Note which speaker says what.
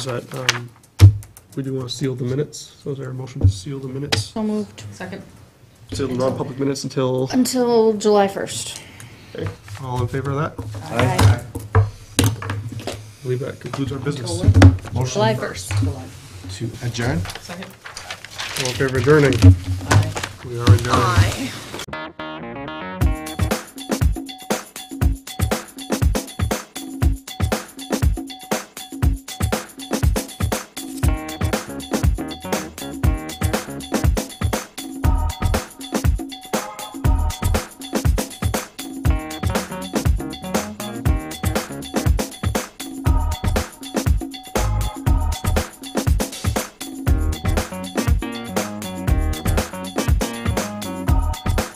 Speaker 1: that, um, we do want to seal the minutes, so is there a motion to seal the minutes?
Speaker 2: So moved.
Speaker 3: Second.
Speaker 1: Seal the non-public minutes until,
Speaker 2: Until July 1st.
Speaker 1: okay, all in favor of that?
Speaker 2: Aye.
Speaker 1: I believe that concludes our business. All
Speaker 2: July
Speaker 4: Motion
Speaker 2: 1st.
Speaker 4: to adjourn?
Speaker 3: Second.
Speaker 1: in favor of adjourning?
Speaker 3: Aye.
Speaker 1: We are adjourned.